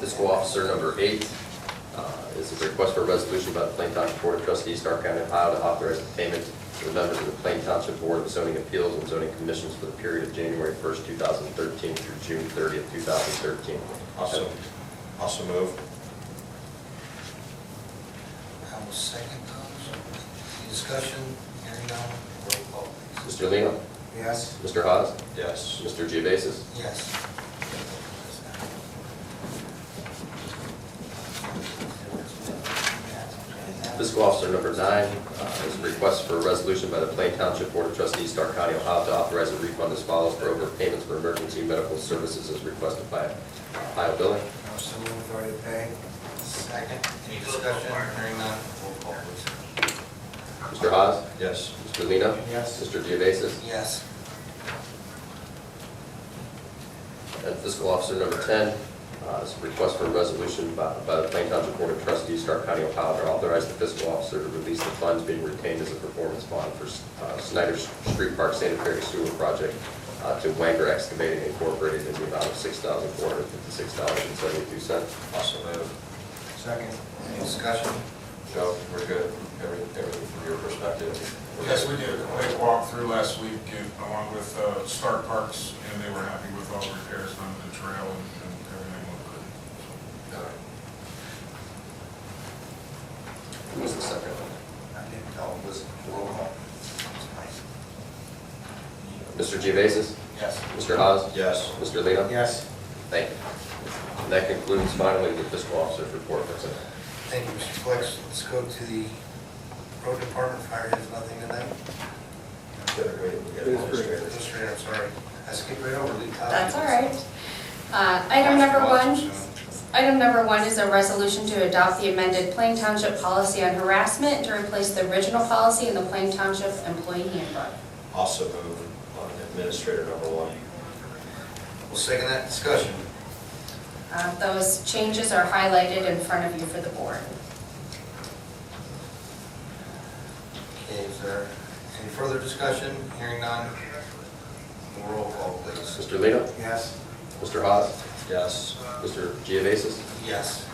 Fiscal Officer number eight uh, is a request for a resolution by the Plain Township Board of Trustees, Stark County, Ohio, to authorize the payment to the members of the Plain Township Board of Zoning Appeals and Zoning Commissions for the period of January 1st, 2013 through June 30th, 2013. Also, also move. I will second those. Any Discussion, hearing none, roll call please. Mr. Lino? Yes. Mr. Haas? Yes. Mr. Geovasis? Yes. Fiscal Officer number nine uh, is a request for a resolution by the Plain Township Board of Trustees, Stark County, Ohio, to authorize a refund as follows for overpayments for emergency medical services as requested by Ohio Billing. Motion to authority to pay. Second, any discussion, hearing none, roll call please. Mr. Haas? Yes. Mr. Lino? Yes. Mr. Geovasis? Yes. And Uh, Fiscal Officer number 10 uh, is a request for a resolution by by the Plain Township Board of Trustees, Stark County, Ohio, to authorize the fiscal officer to release the funds being retained as a performance bond for uh, Snyder's Street Park Sanitary Sewer Project uh, to Wanger Excavating Incorporated in the amount of $6,456.72. Also move. Second. Any discussion? Joe, we're good, every, everything from your perspective. We're Yes, we good. did. They walked through last week uh, along with uh, Stark Parks, and they were happy with all the repairs on the trail and and everything looked good. All right. Who was the second one? I didn't tell, was roll call. Mr. Geovasis? Yes. Mr. Haas? Yes. Mr. Lino? Yes. Thank you. And that concludes finally the fiscal officer's report for tonight. Thank you, Mr. Flex. Let's go to the road department, fire has nothing in them. Good, we- we get it straight. Administrator, I'm sorry, I skipped right over Lee Todd. That's all right. Uh, Item number one, item number one is a resolution to adopt the amended Plain Township policy on harassment to replace the original policy in the Plain Township employee handbook. Also move on administrator number one. We'll second that discussion. Uh, Those changes are highlighted in front of you for the board. Okay, is there any further discussion? Hearing none, roll call please. Mr. Lino? Yes. Mr. Haas? Yes. Mr. Geovasis? Yes.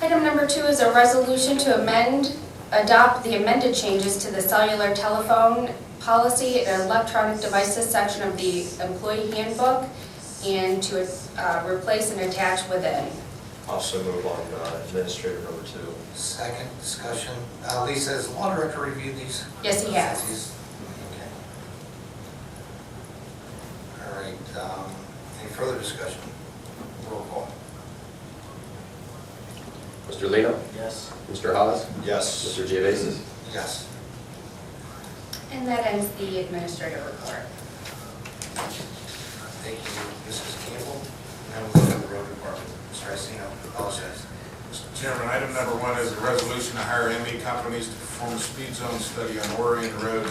Item number two is a resolution to amend, adopt the amended changes to the cellular telephone policy and electronic devices section of the employee handbook and to uh, replace and attach within. Also move on uh, administrator number two. Second discussion. Uh, Lisa, has the law director reviewed these? Yes, he has. He's- okay. All right, um, any further discussion? Roll call. Mr. Lino? Yes. Mr. Haas? Yes. Mr. Geovasis? Yes. And that ends the administrative report. Thank you, Mrs. Campbell. Now we'll go to the road department. Mr. Iacino, apologize. Mr. Chairman, item number one is a resolution to hire ME companies to perform a speed zone study on Orion Road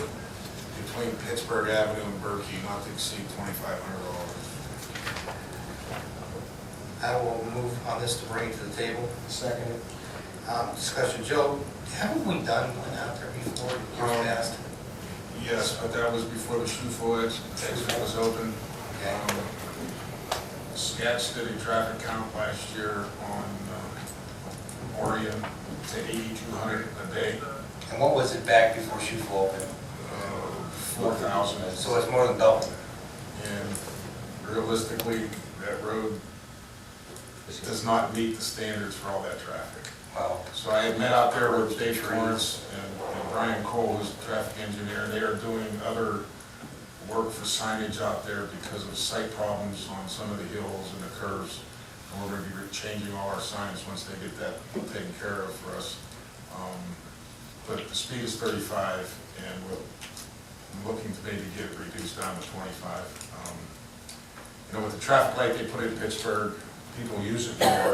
between Pittsburgh Avenue and Berkey, not to exceed $2,500. I will move on this to bring it to the table. Second. Um, discussion, Joe, haven't we done one out there before? Years Um, past? Yes, but that was before the shoe flies, exit was open. Okay. Um, Scats did a traffic count last year on um, Orion to 8,200 a day, And what was it back before shoe fall opened? uh, 4,000. So it's more than double. And realistically, that road does not meet the standards for all that traffic. Wow. So I had met out there with Dave Lawrence and and Brian Cole, who's a traffic engineer, and they are doing other work for signage out there because of site problems on some of the hills and the curves. And we're gonna be changing all our signs once they get that taken care of for us. Um, But the speed is thirty-five, and we're I'm looking to maybe get it reduced down to twenty-five. Um, You know, with the traffic light they put in Pittsburgh, people use it more,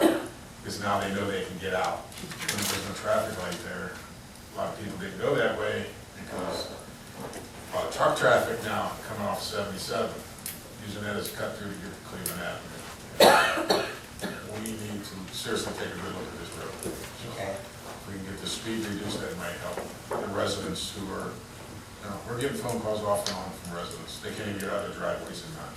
because now they know they can get out. When there's no traffic light there, a lot of people didn't go that way, because a lot of truck traffic now coming off seventy-seven, using that as a cut through to get to Cleveland Avenue. We need to seriously take a good look at this road. Okay. If we can get the speed reduced, that might help the residents who are, you know, we're getting phone calls off and on from residents. They can't even get out of their driveways in time.